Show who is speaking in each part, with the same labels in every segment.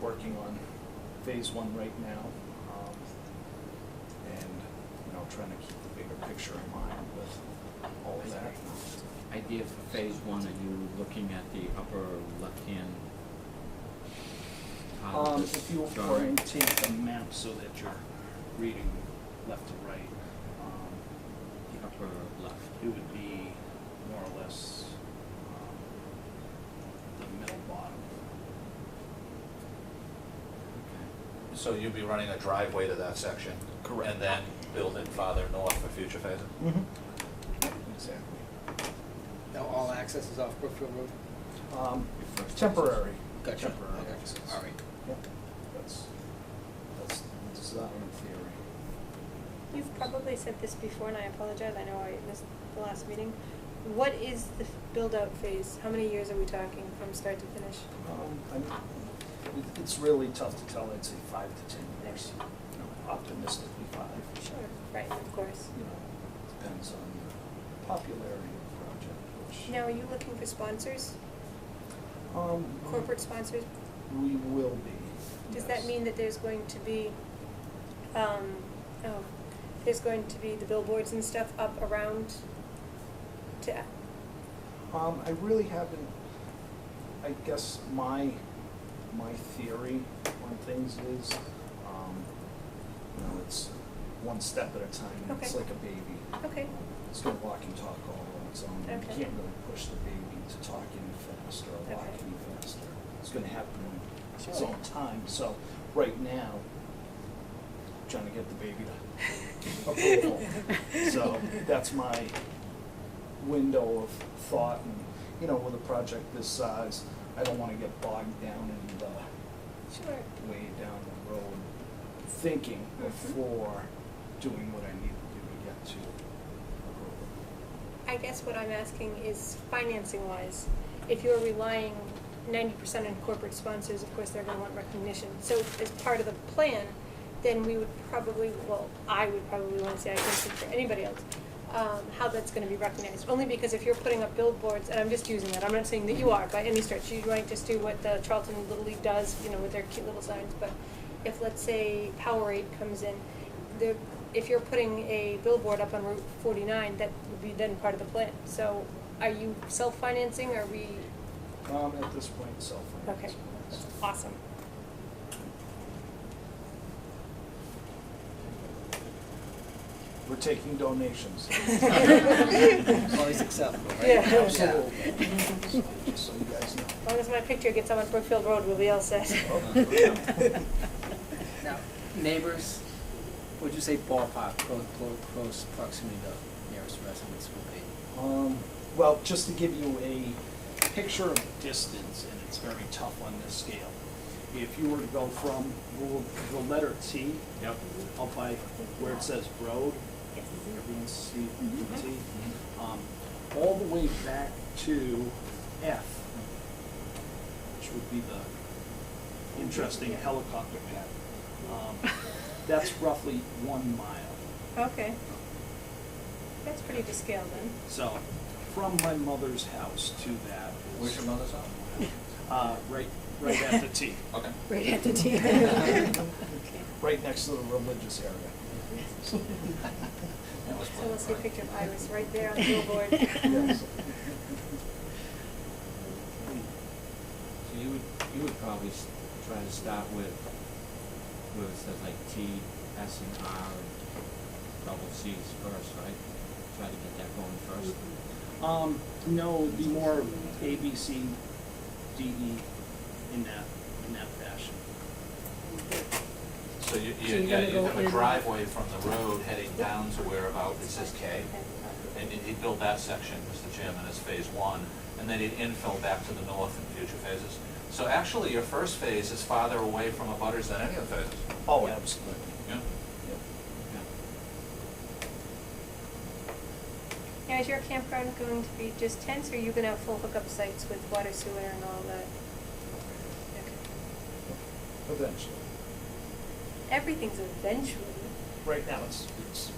Speaker 1: working on phase one right now. um, And, you know, trying to keep the bigger picture in mind with all of that.
Speaker 2: Idea for phase one, are you looking at the upper left-hand? part of
Speaker 1: Um,
Speaker 2: this
Speaker 1: if you
Speaker 2: drawing?
Speaker 1: orientate the map so that you're reading left to right, um,
Speaker 2: The upper left.
Speaker 1: it would be more or less um, the middle bottom.
Speaker 3: So you'd be running a driveway to that section?
Speaker 1: Correct.
Speaker 3: And then build it farther north for future phases?
Speaker 1: Exactly.
Speaker 4: Now, all access is off Brookfield Road?
Speaker 1: Um,
Speaker 2: Your first
Speaker 1: Temporary.
Speaker 4: Gotcha,
Speaker 1: Temporary
Speaker 4: okay,
Speaker 1: access.
Speaker 4: all right.
Speaker 1: Yep. That's, that's design theory.
Speaker 5: You've probably said this before, and I apologize, I know I missed the last meeting. What is the build-out phase? How many years are we talking from start to finish?
Speaker 1: Um, I'm- it- It's really tough to tell, I'd say five to 10 years, you know, optimistically five.
Speaker 5: Sure. Right, of course.
Speaker 1: You know, depends on the popularity of the project, which.
Speaker 5: Now, are you looking for sponsors,
Speaker 1: Um,
Speaker 5: corporate sponsors?
Speaker 1: We will be.
Speaker 5: Does that
Speaker 1: yes.
Speaker 5: mean that there's going to be, um, oh, there's going to be the billboards and stuff up around to,
Speaker 1: Um, I really haven't, I guess my, my theory on things is, um, you know, it's one step at a time, and it's
Speaker 5: Okay.
Speaker 1: like a baby.
Speaker 5: Okay.
Speaker 1: It's gonna walk and talk all on its own, you
Speaker 5: Okay.
Speaker 1: can't really push the baby to talk any faster or walk
Speaker 5: Okay.
Speaker 1: any faster. It's gonna happen in its
Speaker 5: Sure.
Speaker 1: own time, so, right now, trying to get the baby to approval. So that's my window of thought and, you know, with a project this size, I don't wanna get bogged down in the
Speaker 5: sure,
Speaker 1: way down the road thinking before doing what I need to do to get to approval.
Speaker 5: I guess what I'm asking is financing wise, if you're relying ninety percent on corporate sponsors, of course, they're gonna want recognition. So as part of the plan, then we would probably, well, I would probably wanna say, I can speak for anybody else, um, how that's gonna be recognized. Only because if you're putting up billboards, and I'm just using that, I'm not saying that you are by any stretch, you might just do what the Charlton Little League does, you know, with their cute little signs, but if, let's say, Powerade comes in, the, if you're putting a billboard up on Route forty-nine, that would be then part of the plan. So are you self-financing, are we,
Speaker 1: Um, at this point, self-finance.
Speaker 5: okay, awesome.
Speaker 1: We're taking donations.
Speaker 4: It's Always acceptable, right?
Speaker 5: Yeah.
Speaker 1: Absolutely. Just so you guys know.
Speaker 5: As long as my picture gets up on Brookfield Road, we'll be all set.
Speaker 1: Oh, yeah.
Speaker 4: Now, neighbors, would you say ballpark, close, close proximity to nearest residents would be?
Speaker 1: Um, well, just to give you a picture of distance, and it's very tough on this scale. If you were to go from the- the letter T. Yep. Up by where it says road, everyone see the T? Um, all the way back to F, which would be the interesting helicopter pad. Um, That's roughly one mile.
Speaker 5: Okay. That's pretty to scale then.
Speaker 1: So, from my mother's house to that is.
Speaker 3: Where's your mother's house?
Speaker 1: Uh, right, right at the T,
Speaker 3: Okay.
Speaker 6: Right at the T.
Speaker 1: right next to the religious area.
Speaker 3: That was
Speaker 5: So we'll see a
Speaker 3: right.
Speaker 5: picture of Iris right there on the billboard.
Speaker 1: Yes. Hmm.
Speaker 2: So you would, you would probably s- try to start with, where it says like T, S and R and double Cs first, right? Try to get that going first.
Speaker 1: Um, no, it'd be more A, B, C, D, E in that, in that fashion.
Speaker 3: So you, you,
Speaker 6: So you're
Speaker 3: yeah,
Speaker 6: gonna
Speaker 3: you
Speaker 6: go
Speaker 3: have
Speaker 6: in-
Speaker 3: a driveway from the road heading down to where about it says K. And he would build that section, Mr. Chairman, as phase one, and then he'd infill back to the north in future phases. So actually, your first phase is farther away from abutters than any of the phases.
Speaker 1: Oh, absolutely.
Speaker 3: Yeah.
Speaker 2: Yeah.
Speaker 5: Now, is your campground going to be just tents, or are you gonna have full hookup sites with water, sewer, and all that? Okay.
Speaker 1: Eventually.
Speaker 5: Everything's eventually.
Speaker 1: Right now, it's, it's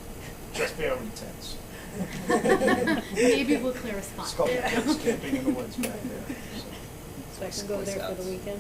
Speaker 1: just barely tense.
Speaker 6: Maybe we'll clear a spot.
Speaker 1: It's called
Speaker 5: Yeah.
Speaker 1: tense camping in the woods back there, so.
Speaker 6: So I can go there for the weekend?